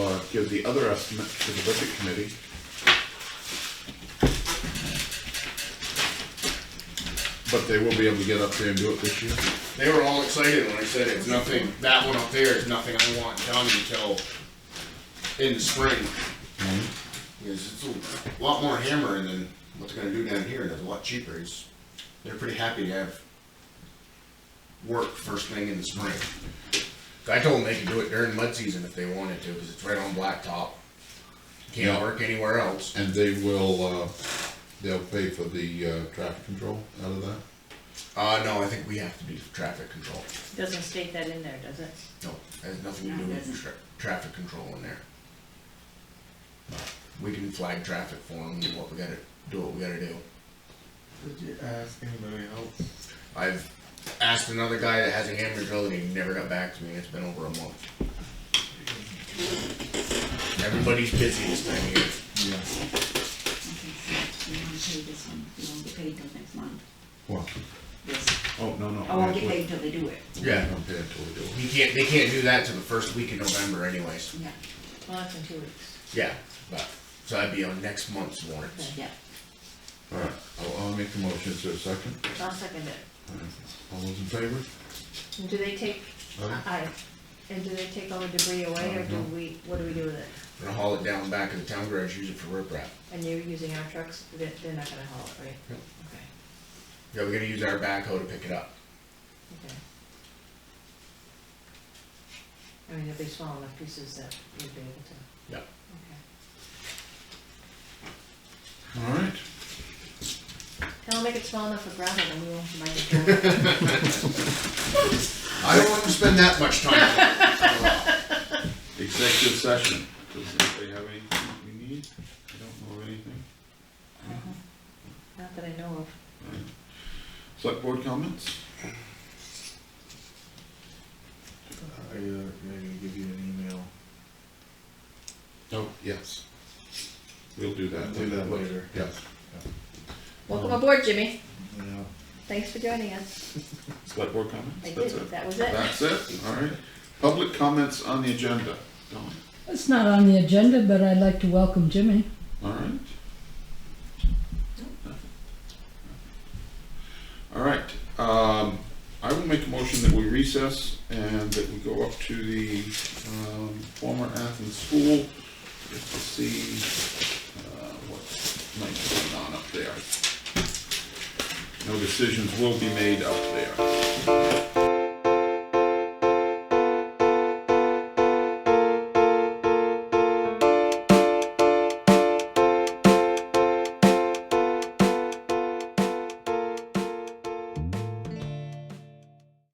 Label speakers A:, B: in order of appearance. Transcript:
A: give the other estimate to the budget committee. But they will be able to get up there and do it this year.
B: They were all excited when I said it's nothing, that one up there is nothing I want done until in the spring. Because it's a lot more hammering than what they're gonna do down here, and it's a lot cheaper, it's, they're pretty happy to have work first thing in the spring. 'Cause I told them they could do it during mud season if they wanted to, cause it's right on blacktop.
A: Yeah.
B: Can't work anywhere else.
A: And they will, uh, they'll pay for the, uh, traffic control out of that.
B: Uh, no, I think we have to do traffic control.
C: Doesn't state that in there, does it?
B: No, has nothing to do with tra- traffic control in there. We can flag traffic for them, do what we gotta, do what we gotta do.
D: Did you ask anybody else?
B: I've asked another guy that has a hammer drill and he never got back to me, and it's been over a month. Everybody's busy this time of year.
D: Yes.
E: You want to pay this one, you won't get paid till next month.
A: What?
E: This,
A: Oh, no, no.
E: I won't get paid till they do it.
A: Yeah,
B: Yeah,
A: don't pay until we do it.
B: he can't, they can't do that till the first week in November anyways.
E: Yeah,
C: Well, that's in two weeks.
B: Yeah, but, so that'd be on next month's warrants.
E: yeah.
A: All right, I'll, I'll make the motion. Is there a second?
C: I'll second it.
A: All right. All those in favor?
C: And do they take,
A: Aye.
C: aye, and do they take all the debris away, or do
A: Uh-huh.
C: we, what do we do with it?
B: Gonna haul it down back in the town garage, use it for riprap.
C: And you're using our trucks, they're, they're not gonna haul it, right?
B: Yep.
C: Okay,
B: Yeah, we're gonna use our backhoe to pick it up.
C: okay. I mean, they'll be small enough pieces that you'd be able to,
B: Yeah.
C: okay.
A: All right.
C: Tell them make it small enough for gravel, then we won't mind it.
B: I don't want to spend that much time. on it.
A: Executive session. Does anybody have anything we need? I don't know of anything.
C: Not that I know of.
A: Select board comments?
D: Are you, they're gonna uh, give you an email?
A: No. Oh, Yes. We'll do that.
D: Do that later.
A: Yes.
C: Welcome aboard, Jimmy.
D: Yeah.
C: Thanks for joining us.
A: Select board comments?
C: I
A: That's
C: did,
A: it.
C: that was it.
A: That's it, all right. Public comments on the agenda. Dawn,
F: It's not on the agenda, but I'd like to welcome Jimmy.
A: all right? All right, um, I will make a motion that we recess and that we go up to the, um, former Athens School just to see, uh, what might be going on up there. No decisions will be made up there.